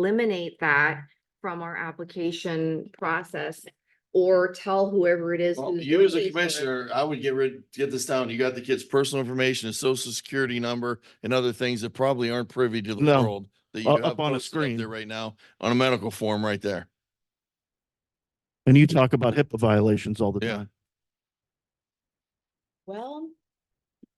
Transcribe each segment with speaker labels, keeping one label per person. Speaker 1: eliminate that from our application process or tell whoever it is.
Speaker 2: Well,
Speaker 1: who's
Speaker 2: You as a
Speaker 1: looking for it.
Speaker 2: commissioner, I would get rid, get this down. You got the kid's personal information, his social security number and other things that probably aren't privy to the
Speaker 3: No.
Speaker 2: world. That you
Speaker 3: Uh,
Speaker 2: have
Speaker 3: up on a
Speaker 2: posted
Speaker 3: screen.
Speaker 2: There right now on a medical form right there.
Speaker 3: And you talk about HIPAA violations all the
Speaker 2: Yeah.
Speaker 3: time.
Speaker 1: Well.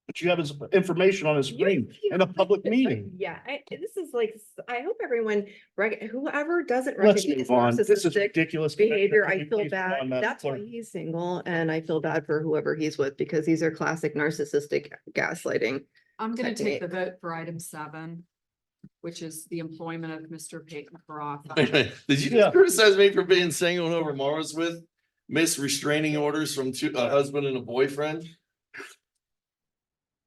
Speaker 3: But you have his information on his
Speaker 1: you-
Speaker 3: screen
Speaker 1: you-
Speaker 3: in a public meeting.
Speaker 1: Yeah, I, this is like, s- I hope everyone, rec- whoever doesn't
Speaker 3: Let's
Speaker 1: recognize
Speaker 3: move on. This is
Speaker 1: narcissistic
Speaker 3: ridiculous. Commissioner.
Speaker 1: behavior,
Speaker 3: Can
Speaker 1: I
Speaker 3: you
Speaker 1: feel
Speaker 3: please move
Speaker 1: bad.
Speaker 3: on, Madam
Speaker 1: That's why
Speaker 3: Clerk?
Speaker 1: he's single and I feel bad for whoever he's with because these are classic narcissistic gaslighting.
Speaker 4: I'm gonna
Speaker 1: technique.
Speaker 4: take the vote for item seven, which is the employment of Mr. Peyton Carafa.
Speaker 2: Did you
Speaker 3: Yeah.
Speaker 2: just criticize me for being single and over Mara's with? Miss restraining orders from two, a husband and a boyfriend?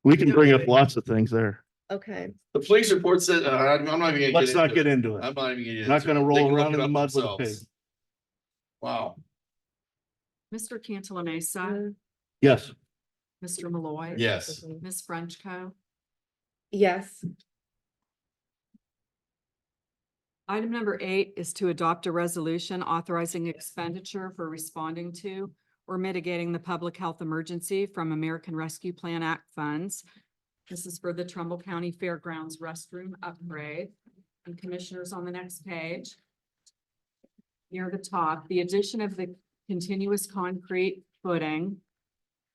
Speaker 3: We can bring up lots of things there.
Speaker 1: Okay,
Speaker 2: The police report said, uh, I'm I'm not even. gonna
Speaker 3: Let's
Speaker 2: into
Speaker 3: not
Speaker 2: it.
Speaker 3: get into
Speaker 2: I'm
Speaker 3: it.
Speaker 2: not even gonna. get into
Speaker 3: Not
Speaker 2: it.
Speaker 3: gonna
Speaker 2: They
Speaker 3: roll
Speaker 2: can look
Speaker 3: around
Speaker 2: it
Speaker 3: in the
Speaker 2: up
Speaker 3: mud with a
Speaker 2: themselves.
Speaker 3: pig.
Speaker 2: Wow.
Speaker 4: Mr. Cantala Mesa,
Speaker 3: Yes,
Speaker 4: Mr. Malloy.
Speaker 2: Yes.
Speaker 4: Ms. Frenchco.
Speaker 1: Mm. yes,
Speaker 4: Item number eight is to adopt a resolution authorizing expenditure for responding to or mitigating the public health emergency from American Rescue Plan Act funds. This is for the Trumbull County Fairgrounds restroom upgrade. And commissioners on the next page. Near the top, the addition of the continuous concrete footing,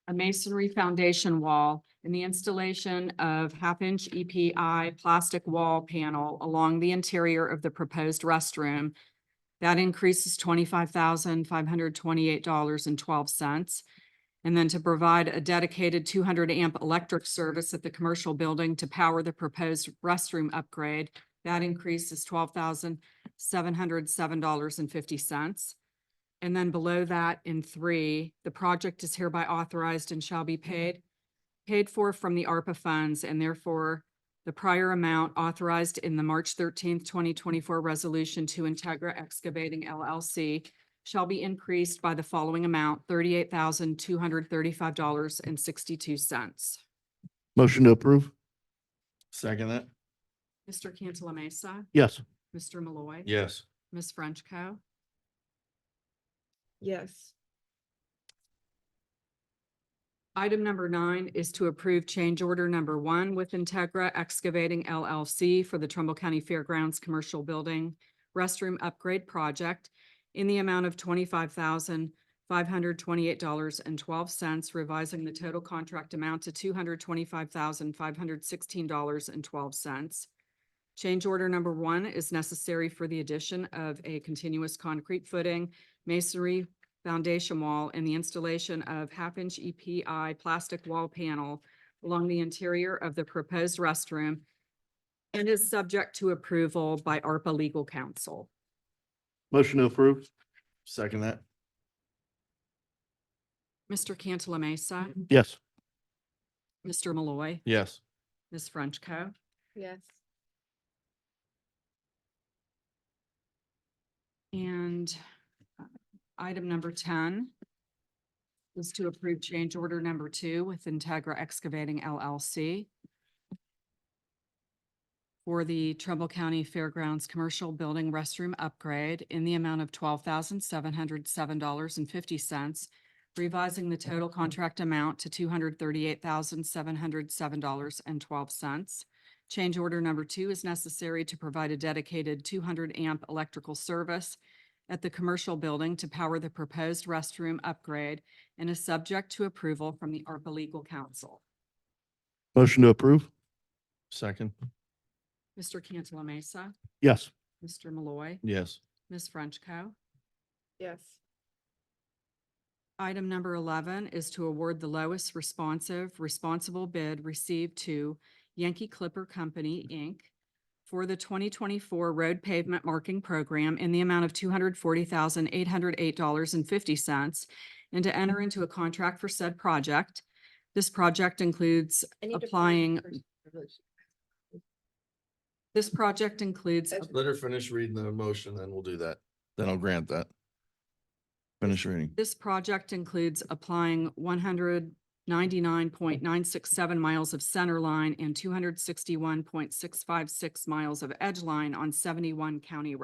Speaker 4: a masonry foundation wall, and the installation of half-inch EPI plastic wall panel along the interior of the proposed restroom. That increases twenty-five thousand, five hundred twenty-eight dollars and twelve cents. And then to provide a dedicated two hundred amp electric service at the commercial building to power the proposed restroom upgrade. That increase is twelve thousand, seven hundred seven dollars and fifty cents. And then below that in three, the project is hereby authorized and shall be paid, paid for from the ARPA funds and therefore the prior amount authorized in the March thirteenth, twenty twenty-four resolution to Integra Excavating LLC shall be increased by the following amount, thirty-eight thousand, two hundred thirty-five dollars and sixty-two cents.
Speaker 3: motion to approve.
Speaker 2: Second that?
Speaker 4: Mr. Cantala Mesa,
Speaker 3: Yes,
Speaker 4: Mr. Malloy.
Speaker 2: Yes.
Speaker 4: Ms. Frenchco.
Speaker 1: yes,
Speaker 4: Item number nine is to approve change order number one with Integra Excavating LLC for the Trumbull County Fairgrounds Commercial Building Restroom Upgrade Project in the amount of twenty-five thousand, five hundred twenty-eight dollars and twelve cents, revising the total contract amount to two hundred twenty-five thousand, five hundred sixteen dollars and twelve cents. Change order number one is necessary for the addition of a continuous concrete footing, masonry foundation wall and the installation of half-inch EPI plastic wall panel along the interior of the proposed restroom and is subject to approval by ARPA legal counsel.
Speaker 3: motion to approve.
Speaker 2: Second that?
Speaker 4: Mr. Cantala Mesa,
Speaker 3: Yes,
Speaker 4: Mr. Malloy,
Speaker 2: Yes.
Speaker 4: Ms. Frenchco.
Speaker 1: yes.
Speaker 4: And uh, item number ten is to approve change order number two with Integra Excavating LLC for the Trumbull County Fairgrounds Commercial Building Restroom Upgrade in the amount of twelve thousand seven hundred seven dollars and fifty cents, revising the total contract amount to two hundred thirty-eight thousand seven hundred seven dollars and twelve cents. Change order number two is necessary to provide a dedicated two hundred amp electrical service at the commercial building to power the proposed restroom upgrade and is subject to approval from the ARPA Legal Counsel.
Speaker 3: motion to approve.
Speaker 2: Second?
Speaker 4: Mr. Cantala Mesa,
Speaker 3: Yes,
Speaker 4: Mr. Malloy,
Speaker 2: Yes.
Speaker 4: Ms. Frenchco.
Speaker 1: Yes.
Speaker 4: Item number eleven is to award the lowest responsive responsible bid received to Yankee Clipper Company, Inc. for the twenty twenty-four road pavement marking program in the amount of two hundred forty thousand, eight hundred eight dollars and fifty cents and to enter into a contract for said project. This project includes applying, this project includes
Speaker 2: Let her finish reading the motion, then we'll do that. Then I'll grant that. Finish reading.
Speaker 4: This project includes applying one hundred ninety-nine point nine six seven miles of center line and two hundred sixty-one point six five six miles of edge line on seventy-one county